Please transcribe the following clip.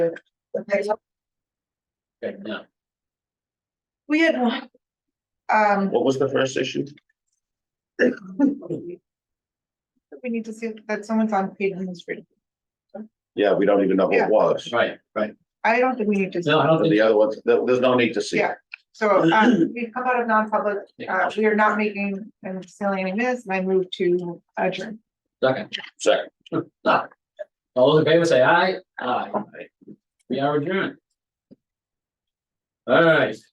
Okay, now, We had one. Um, what was the first issue? we need to see that someone's on paid in this street. Yeah, we don't even know what Yeah. it was. Right, right. I don't think we need to, No, I don't The think. other ones, there- there's no need to see. Yeah. so, um, we've come out of non-public, uh, Yeah, we are not making and selling any minutes, and I move to adjourn. Second, Second. no. All those in favor say aye, aye. We are adjourned. All right.